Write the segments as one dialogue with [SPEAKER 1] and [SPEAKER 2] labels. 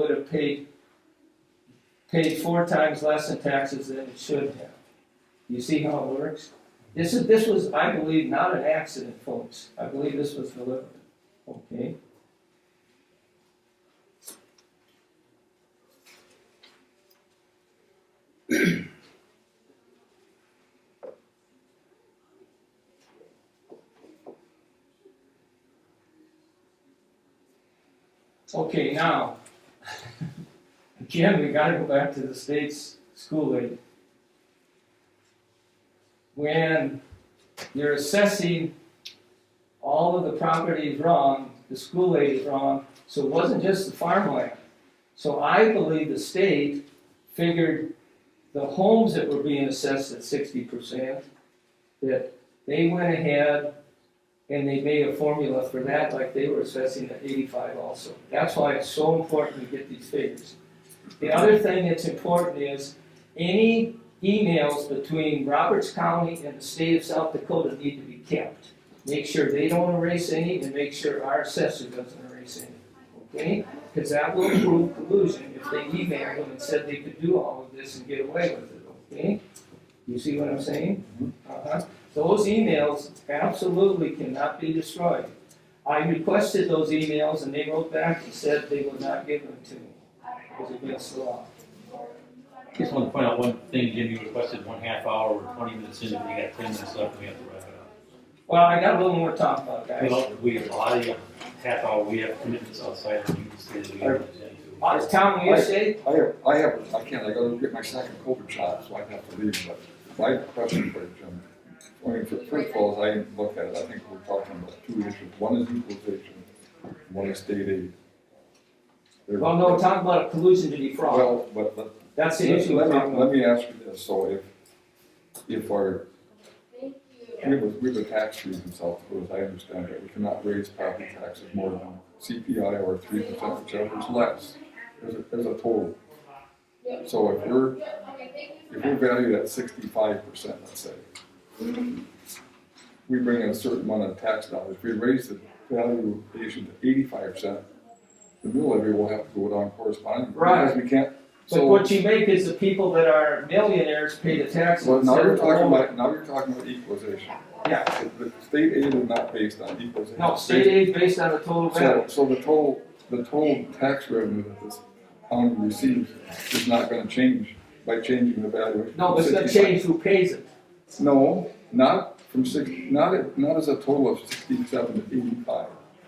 [SPEAKER 1] would have paid, paid four times less in taxes than it should have. You see how it works? This is, this was, I believe, not an accident, folks. I believe this was deliberate, okay? Okay, now, again, we gotta go back to the state's school aid. When you're assessing all of the properties wrong, the school aid is wrong, so it wasn't just the farmland. So I believe the state figured the homes that were being assessed at sixty percent, that they went ahead and they made a formula for that, like they were assessing at eighty-five also. That's why it's so important to get these figures. The other thing that's important is any emails between Roberts County and the state of South Dakota need to be kept. Make sure they don't erase any and make sure our assessor doesn't erase any, okay? Because that will prove collusion if they emailed them and said they could do all of this and get away with it, okay? You see what I'm saying? Uh-huh. Those emails absolutely cannot be destroyed. I requested those emails and they wrote back and said they would not give them to me. It was against the law.
[SPEAKER 2] Just want to point out one thing, Jim, you requested one half hour, we're twenty minutes in, we got ten minutes left, we have to wrap it
[SPEAKER 1] Well, I got a little more time about
[SPEAKER 2] up.
[SPEAKER 1] that.
[SPEAKER 2] We have, we have a lot of, you- half hour, we have commitments outside, and you can stay that we have to attend to.
[SPEAKER 1] Out of Uh, town, you say?
[SPEAKER 3] I have, I have, I can't, I gotta get my second COVID shot, so I have to leave, but my question for you, Jim. I mean, for- first of all, as I look at it, I think we're talking about two issues, one is equalization, one is state aid. There-
[SPEAKER 1] Well, Oh, no, talk about a collusion to defraud.
[SPEAKER 3] Well, but, but,
[SPEAKER 1] That's the
[SPEAKER 3] let
[SPEAKER 1] issue we're talking
[SPEAKER 3] me,
[SPEAKER 1] about.
[SPEAKER 3] let me ask you this, so if, if our, we have, a- we have a tax freeze in South Dakota, as I understand it, we cannot raise property taxes more than CPI or three percent, whichever is less, there's a, there's a total. So if we're if we value at sixty-five percent, let's say, we bring in a certain amount of tax dollars, if we raise the valuation to eighty-five percent, the mill levy will have to go down correspondingly. because We can't,
[SPEAKER 1] But
[SPEAKER 3] so,
[SPEAKER 1] what you make is the people that are millionaires pay the taxes.
[SPEAKER 3] well, now
[SPEAKER 1] instead
[SPEAKER 3] you're
[SPEAKER 1] of the
[SPEAKER 3] talking
[SPEAKER 1] lower-
[SPEAKER 3] about, now you're talking about equalization.
[SPEAKER 1] Yeah.
[SPEAKER 3] The the state aid is not based on equalization.
[SPEAKER 1] No, state aid based on the total value.
[SPEAKER 3] So, so the total, the total tax revenue that this county receives is not gonna change by changing the valuation.
[SPEAKER 1] No,
[SPEAKER 3] from
[SPEAKER 1] it's gonna
[SPEAKER 3] 65.
[SPEAKER 1] change who pays it.
[SPEAKER 3] No, not from six, not, not as a total of sixty-seven to eighty-five.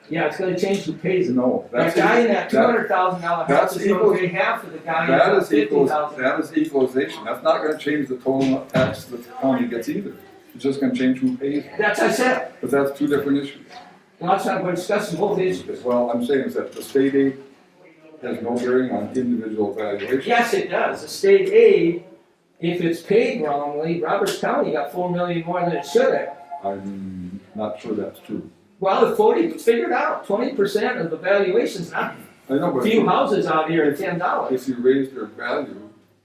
[SPEAKER 1] Yeah, it's gonna change who pays it.
[SPEAKER 3] No,
[SPEAKER 1] That
[SPEAKER 3] that's.
[SPEAKER 1] guy in that two
[SPEAKER 3] that-
[SPEAKER 1] hundred thousand dollar house
[SPEAKER 3] that's
[SPEAKER 1] is gonna
[SPEAKER 3] equal-
[SPEAKER 1] pay half of the guy in
[SPEAKER 3] That
[SPEAKER 1] the
[SPEAKER 3] is
[SPEAKER 1] fifty
[SPEAKER 3] equals,
[SPEAKER 1] thousand.
[SPEAKER 3] that is equalization, that's not gonna change the total tax that the county gets either. It's just gonna change who pays,
[SPEAKER 1] That's I said,
[SPEAKER 3] but that's two different issues.
[SPEAKER 1] last time we're discussing both issues.
[SPEAKER 3] Well, I'm saying is that the state aid has no bearing on individual valuation.
[SPEAKER 1] Yes, it does, the state aid, if it's paid wrongly, Roberts County got four million more than it should have.
[SPEAKER 3] I'm not sure that's true.
[SPEAKER 1] Well, the forty, figured out, twenty percent of the valuation's not,
[SPEAKER 3] I know, but.
[SPEAKER 1] few houses out here are ten dollars.
[SPEAKER 3] If you raise their value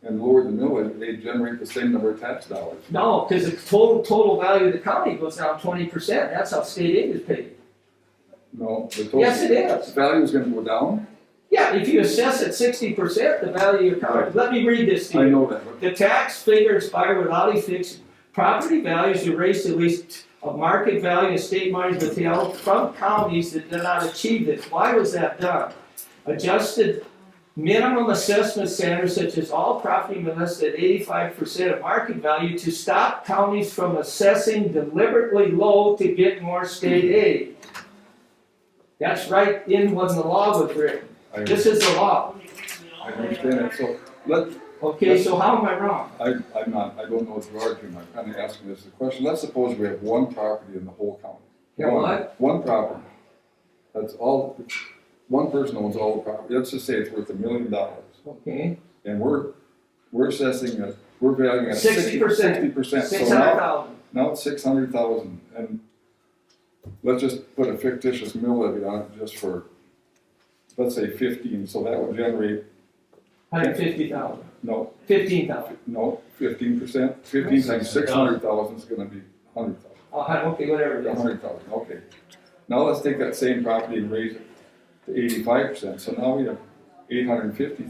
[SPEAKER 3] and lower the millage, they generate the same number of tax dollars.
[SPEAKER 1] No, cause the total, total value of the county goes down twenty percent, that's how state aid is paid.
[SPEAKER 3] No, the total.
[SPEAKER 1] Yes, it is.
[SPEAKER 3] Value is gonna go down,
[SPEAKER 1] Yeah, if you assess at sixty percent, the value of your county, let me read this to you.
[SPEAKER 3] I know that, but
[SPEAKER 1] The tax figure expired without a fix. Property values erased at least of market value and state monies withheld from counties that did not achieve this. Why was that done? Adjusted minimum assessment standards such as all property less than eighty-five percent of market value to stop counties from assessing deliberately low to get more state aid. That's right in when the law was written.
[SPEAKER 3] I,
[SPEAKER 1] This is the law.
[SPEAKER 3] I understand that, so, let,
[SPEAKER 1] Okay, so how am I wrong?
[SPEAKER 3] I, I'm not, I don't know what you're arguing, I'm kinda asking this as a question, let's suppose we have one property in the whole county.
[SPEAKER 1] Yeah,
[SPEAKER 3] One-
[SPEAKER 1] what?
[SPEAKER 3] One property, that's all, one person owns all the property, let's just say it's worth a million dollars,
[SPEAKER 1] Okay.
[SPEAKER 3] and we're, we're assessing it, we're valuing it sixty,
[SPEAKER 1] 60%.
[SPEAKER 3] sixty percent, so now.
[SPEAKER 1] Six hundred thousand.
[SPEAKER 3] Now it's six hundred thousand, and let's just put a fictitious mill levy on it just for, let's say fifteen, so that would generate,
[SPEAKER 1] Hundred fifty thousand,
[SPEAKER 3] no,
[SPEAKER 1] fifteen thousand,
[SPEAKER 3] no, fifteen percent, fifteen times six hundred thousand is gonna be hundred thousand,
[SPEAKER 1] oh, hun- okay, whatever it
[SPEAKER 3] a
[SPEAKER 1] is.
[SPEAKER 3] hundred thousand, okay. Now let's take that same property and raise it to eighty-five percent, so now we have eight hundred and fifty